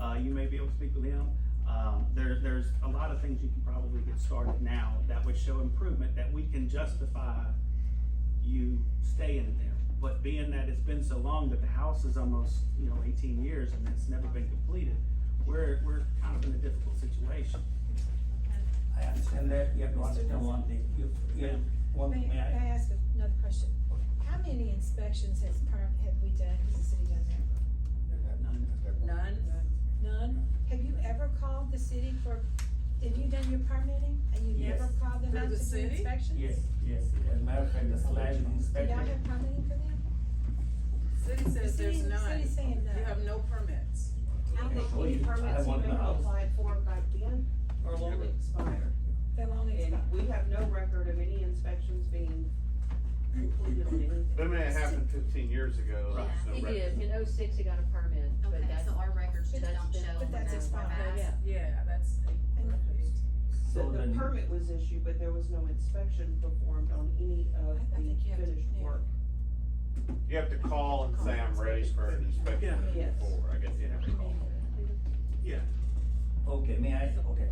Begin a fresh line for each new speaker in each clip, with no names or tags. Uh, you may be able to speak with him. Um, there, there's a lot of things you can probably get started now that would show improvement that we can justify you staying there. But being that it's been so long that the house is almost, you know, eighteen years and it's never been completed, we're, we're kind of in a difficult situation.
I understand that, you have to understand one thing, you, you, have one,
May, may
may
I
I?
ask another question? How many inspections has perm, have we done, has the city done that?
None?
None? Have you ever called the city for, have you done your permitting and you never
Yes.
called them
Through
out
the
to do
city?
inspections?
Yes, yes, as a matter of fact, the land
Do y'all
inspector,
have permitting for them?
City says
city-
there's
the
none.
city's saying
You
none.
have no permits.
I
Okay,
think
so
any
you- I
permits you
want
may
the house.
apply for back then are long expired.
They'll only
And
expect-
we have no record of any inspections being completed on anything.
That may have happened fifteen years ago.
Right.
there's no
He
record.
did, in oh six, he got a permit, but
Okay,
that's,
so our records just
that's
don't
been-
show.
but
when
that's
those were
expired.
passed.
yeah.
Yeah, that's.
so
So the
then,
permit was issued, but there was no inspection performed on any of
I- I
the
think you have to-
finished
yeah.
work.
You have to call and say, I'm ready for an inspection
Yeah.
before, I guess you have to call.
Yeah,
okay, may I, okay.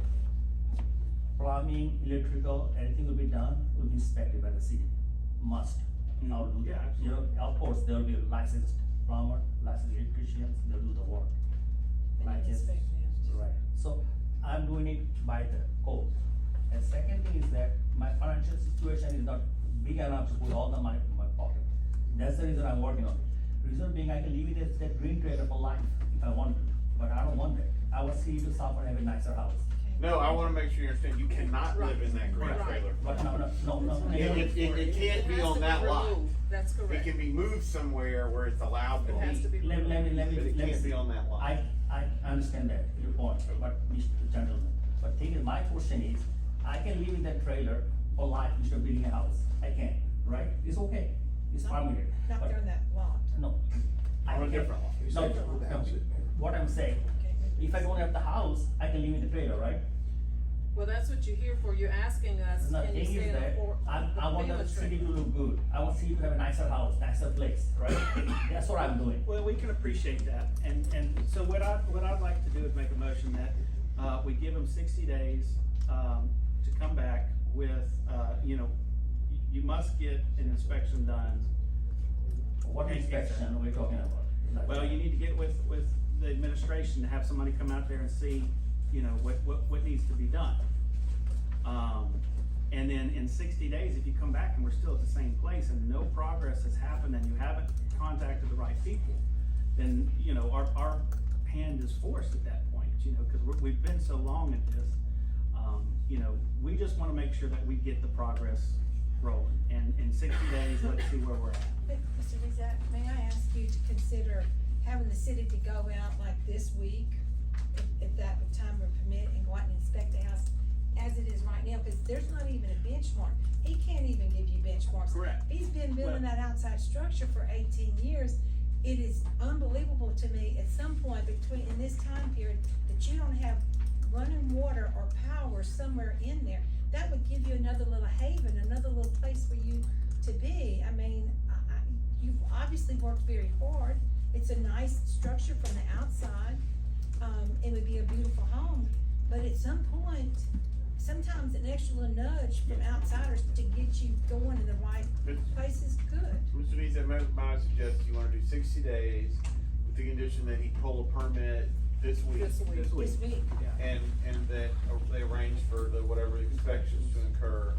Plumbing, electrical, anything will be done, will be inspected by the city, must. Now, do-
Yeah,
you know, of course, there will be a licensed plumber, licensed electricians, they'll do the work.
But you
Like it's-
inspect them.
Right, so I'm doing it by the code. And second thing is that my financial situation is not big enough to put all the money in my pocket. That's the reason I'm working on it. Reason being, I can live in that, that green trailer for life if I want to, but I don't want that. I want city to suffer and have a nicer house.
No, I wanna make sure you understand, you cannot live in that green
Right.
trailer.
But no, no, no, no.
It, it, it- it can't be on that lot.
That's
It
correct.
can be moved somewhere where it's allowed to
It has to
be,
be.
Let, let me,
removed.
let
but
me,
it
let me.
can't be on that lot.
I, I understand that, your point, but, Mr. Gentleman, but thing is, my question is, I can live in that trailer for life instead of building a house, I can, right? It's okay, it's permitted,
Not
but,
during that lot.
no. I
On a
can't-
different lot.
No, no, what I'm saying,
Okay.
if I don't have the house, I can live in the trailer, right?
Well, that's what you're here for. You're asking us,
No,
can you
thing is
stand up
that,
for?
I, I want the city to look good, I want city to have a nicer house, nicer place, right? That's what I'm doing.
well, we can appreciate that, and, and so what I, what I'd like to do is make a motion that, uh, we give them sixty days, um, to come back with, uh, you know, y- you must get an inspection done.
What
Okay, yes, sir.
inspection are we talking about? Like-
Well, you need to get with, with the administration, to have somebody come out there and see, you know, what, what, what needs to be done. Um, and then in sixty days, if you come back and we're still at the same place and no progress has happened and you haven't contacted the right people, then, you know, our, our hand is forced at that point, you know, cause we're, we've been so long at this. Um, you know, we just wanna make sure that we get the progress rolling, and in sixty days, let's see where we're at.
But, Mr. Rizak, may I ask you to consider having the city to go out like this week, if, if that would time would permit, and go out and inspect the house as it is right now, cause there's not even a benchmark. He can't even give you benchmarks.
Correct.
He's been building that outside structure for eighteen years. It is unbelievable to me, at some point between, in this time period, that you don't have running water or power somewhere in there. That would give you another little haven, another little place for you to be. I mean, I, I, you've obviously worked very hard. It's a nice structure from the outside. Um, it would be a beautiful home, but at some point, sometimes an extra little nudge from outsiders to get you going in the right place is good.
Mr. Dees, may, may I suggest you wanna do sixty days with the condition that he pull a permit this week.
This week.
This week.
This week,
Yeah.
And, and that they arrange for the, whatever inspections to incur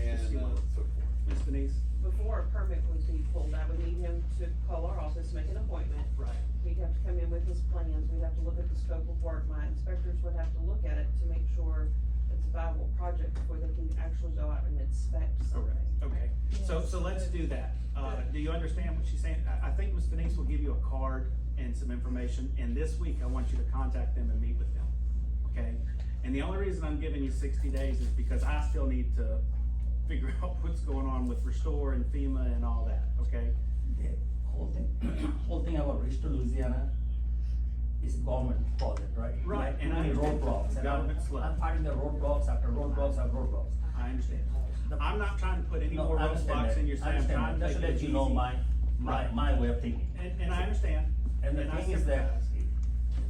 and
Yes, you
uh,
will.
so forth.
Ms. Denise?
Before a permit would be pulled, I would need him to call our office, make an appointment.
Right.
He'd have to come in with his plans, we'd have to look at the scope of work, my inspectors would have to look at it to make sure it's a viable project before they can actually go out and inspect something.
Okay, so, so let's do that. Uh, do you understand what she's saying? I, I think Ms. Denise will give you a card and some information, and this week I want you to contact them and meet with them, okay? And the only reason I'm giving you sixty days is because I still need to figure out what's going on with Restore and FEMA and all that, okay?
the whole thing, whole thing about Restore Louisiana is government project, right?
Right,
Like,
and I
many
understand.
roadblocks, and I'm,
Government's left.
I'm fighting the roadblocks after roadblocks after roadblocks.
I understand. I'm not trying to put any
Uh, No,
more
I understand
roadblocks
that.
in your,
I
saying I'm
understand
trying
that.
to
Just
take
to let
it
you know
easy.
my, my,
Right.
my way of thinking.
And, and I understand.
And the
I
thing is that,
sympathize.